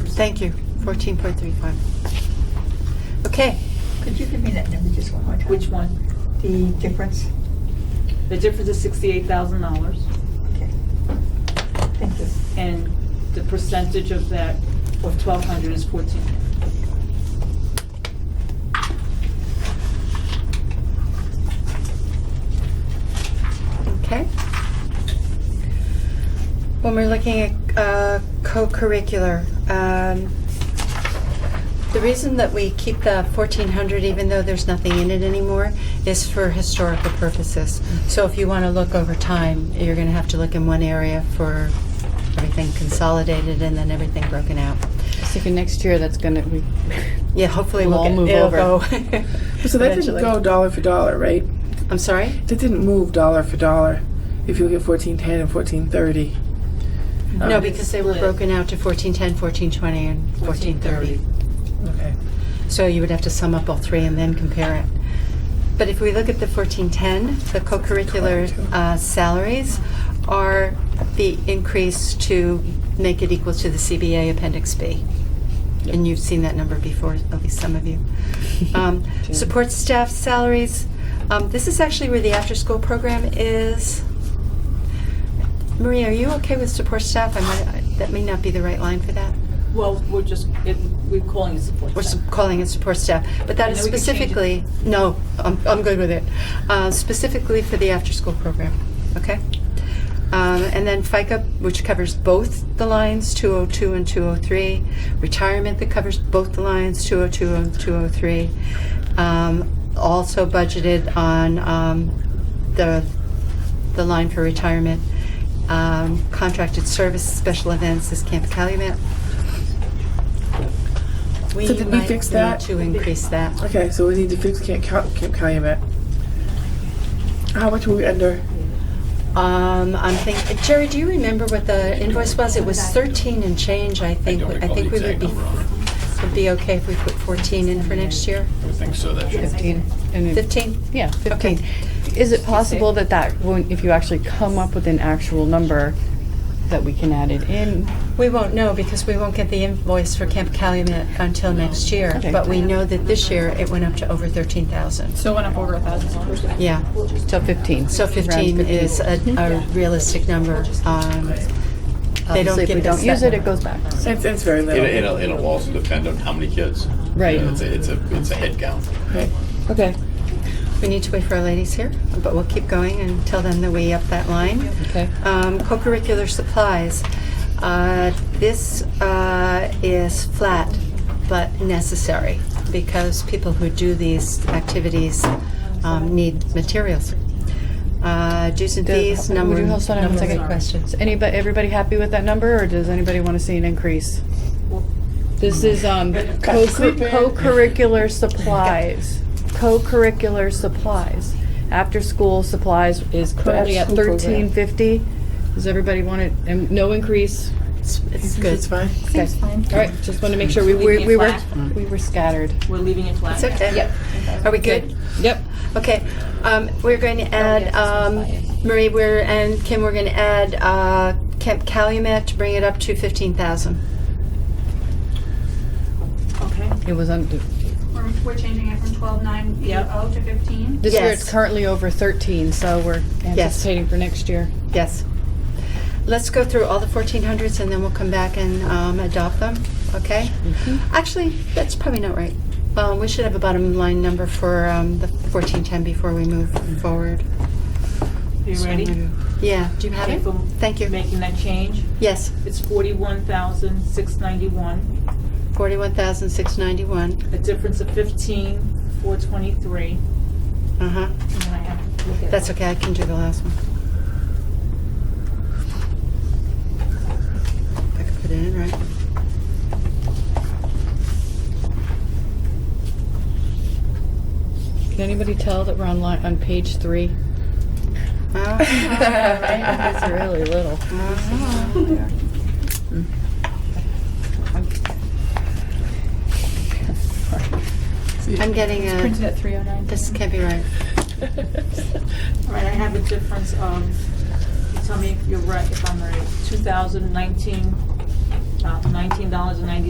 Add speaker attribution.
Speaker 1: Thank you, 14.35. Okay,
Speaker 2: Could you give me that number just one more time?
Speaker 3: Which one?
Speaker 2: The difference?
Speaker 3: The difference is sixty-eight thousand dollars,
Speaker 2: Okay. Thank you.
Speaker 3: and the percentage of that, of twelve hundred is fourteen.
Speaker 1: okay. When we're looking at uh, co-curricular, um, the reason that we keep the 1400, even though there's nothing in it anymore, is for historical purposes. So if you want to look over time, you're going to have to look in one area for everything consolidated and then everything broken out.
Speaker 4: So you can- next year, that's gonna, we,
Speaker 1: Yeah, hopefully we'll
Speaker 4: We'll all
Speaker 1: get-
Speaker 4: move
Speaker 1: it'll
Speaker 4: over.
Speaker 1: go
Speaker 5: So that
Speaker 1: eventually.
Speaker 5: didn't go dollar for dollar, right?
Speaker 1: I'm sorry?
Speaker 5: That didn't move dollar for dollar. If you look at fourteen ten and fourteen thirty. Um,
Speaker 1: No, because they were
Speaker 3: Split.
Speaker 1: broken out to 1410, 1420, and 1430.
Speaker 5: Okay.
Speaker 1: So you would have to sum up all three and then compare it. But if we look at the 1410, the co-curricular uh, salaries are the increase to make it equal to the CBA Appendix B. And you've seen that number before, at least some of you. Um, Support staff salaries, um, this is actually where the after-school program is. Maria, are you okay with support staff? I might, I- that may not be the right line for that.
Speaker 3: Well, we're just, it- we're calling it support
Speaker 1: We're
Speaker 3: staff.
Speaker 1: sup- calling it support staff, but that
Speaker 3: And
Speaker 1: is
Speaker 3: then we can change it.
Speaker 1: specifically, no, I'm, I'm good with it. Uh, Specifically for the after-school program, okay? Um, And then FICA, which covers both the lines, 202 and 203. Retirement that covers both the lines, 202 and 203. Um, Also budgeted on um, the, the line for retirement. Um, Contracted service, special events is Camp Calumet. We
Speaker 5: So did we
Speaker 1: might
Speaker 5: fix
Speaker 1: need
Speaker 5: that?
Speaker 1: To increase that.
Speaker 5: Okay, so we need to fix Camp, Cal- Camp Calumet. How much were we under?
Speaker 1: Um, I'm thinking, Jerry, do you remember what the invoice was? It was 13 and change, I
Speaker 6: I
Speaker 1: think.
Speaker 6: don't recall
Speaker 1: think
Speaker 6: the
Speaker 1: we would
Speaker 6: exact
Speaker 1: be,
Speaker 6: number on it.
Speaker 1: would be okay if we put 14 in for next year.
Speaker 6: I would think so, that should,
Speaker 4: fifteen, and it-
Speaker 1: 15?
Speaker 4: yeah,
Speaker 1: Okay.
Speaker 4: fifteen. Is it possible that that, when, if you actually come up with an actual number, that we can add it in?
Speaker 1: We won't know because we won't get the invoice for Camp Calumet until next year.
Speaker 4: Okay.
Speaker 1: But we know that this year it went up to over 13,000.
Speaker 7: So it went up over a thousand dollars.
Speaker 1: Yeah.
Speaker 4: So fifteen. Mm-hmm.
Speaker 1: So
Speaker 4: Around
Speaker 1: 15 is a a realistic number. Um, They don't
Speaker 4: Obviously, if
Speaker 1: give
Speaker 4: we
Speaker 1: us
Speaker 4: don't
Speaker 1: that
Speaker 4: use it, it
Speaker 1: number.
Speaker 4: goes back.
Speaker 5: It's, it's very little.
Speaker 6: it'll, it'll, it'll also depend on how many kids.
Speaker 4: Right.
Speaker 6: You know, It's a, it's a, it's a head count.
Speaker 5: Right. Okay.
Speaker 1: We need to wait for our ladies here, but we'll keep going and tell them that we up that line.
Speaker 4: Okay.
Speaker 1: Um, co-curricular supplies. Uh, this uh, is flat but necessary because people who do these activities um, need materials. Uh, dues and
Speaker 4: Does-
Speaker 1: fees,
Speaker 4: would
Speaker 1: number,
Speaker 4: you hold on one
Speaker 1: number
Speaker 4: second?
Speaker 1: of questions.
Speaker 4: Is anybody, everybody happy with that number, or does anybody want to see an increase? This is um, co- co-curricular supplies, co-curricular supplies. After-school supplies is currently at
Speaker 5: after-school program.
Speaker 4: thirteen fifty. Does everybody want it, and no increase?
Speaker 1: It's, it's
Speaker 5: It's
Speaker 1: good.
Speaker 5: fine.
Speaker 4: Okay.
Speaker 7: fine.
Speaker 4: All right, just want to make sure we,
Speaker 3: Leaving
Speaker 4: we
Speaker 3: it
Speaker 4: we were,
Speaker 3: flat.
Speaker 4: we were scattered.
Speaker 3: We're leaving it flat.
Speaker 1: It's okay. Are we good?
Speaker 4: Yep.
Speaker 1: Okay, um, we're going
Speaker 4: Oh,
Speaker 1: to add, um, Marie, we're, and Kim, we're going to add, uh, Camp Calumet to bring it up to fifteen thousand.
Speaker 3: Okay.
Speaker 4: It was under,
Speaker 8: We're, we're changing it from twelve nine
Speaker 3: Yep.
Speaker 8: oh to fifteen.
Speaker 4: this year it's
Speaker 1: Yes.
Speaker 4: currently over thirteen, so we're anticipating for next year.
Speaker 1: Yes. Let's go through all the fourteen hundreds and then we'll come back and, um, adopt them, okay?
Speaker 7: Mm-hmm.
Speaker 1: Actually, that's probably not right. Um, we should have a bottom line number for, um, the fourteen ten before we move forward.
Speaker 3: You ready?
Speaker 1: Yeah, do you have
Speaker 3: Okay,
Speaker 1: it?
Speaker 3: for
Speaker 1: Thank you.
Speaker 3: Making that change.
Speaker 1: Yes,
Speaker 3: It's forty-one thousand, six ninety-one,
Speaker 1: forty-one thousand six ninety-one,
Speaker 3: a difference of fifteen, four twenty-three.
Speaker 1: uh-huh.
Speaker 3: And I have to look at
Speaker 1: That's okay, I can do the last one. I can put it in, right?
Speaker 4: Can anybody tell that we're on line, on page three?
Speaker 1: Uh,
Speaker 4: It's really little.
Speaker 1: uh-huh. I'm getting
Speaker 7: Printed
Speaker 1: a,
Speaker 7: at three oh nine.
Speaker 1: this can't be right.
Speaker 3: All right, I have a difference of, you tell me if you're right, if I'm right, two thousand nineteen, uh, nineteen dollars and ninety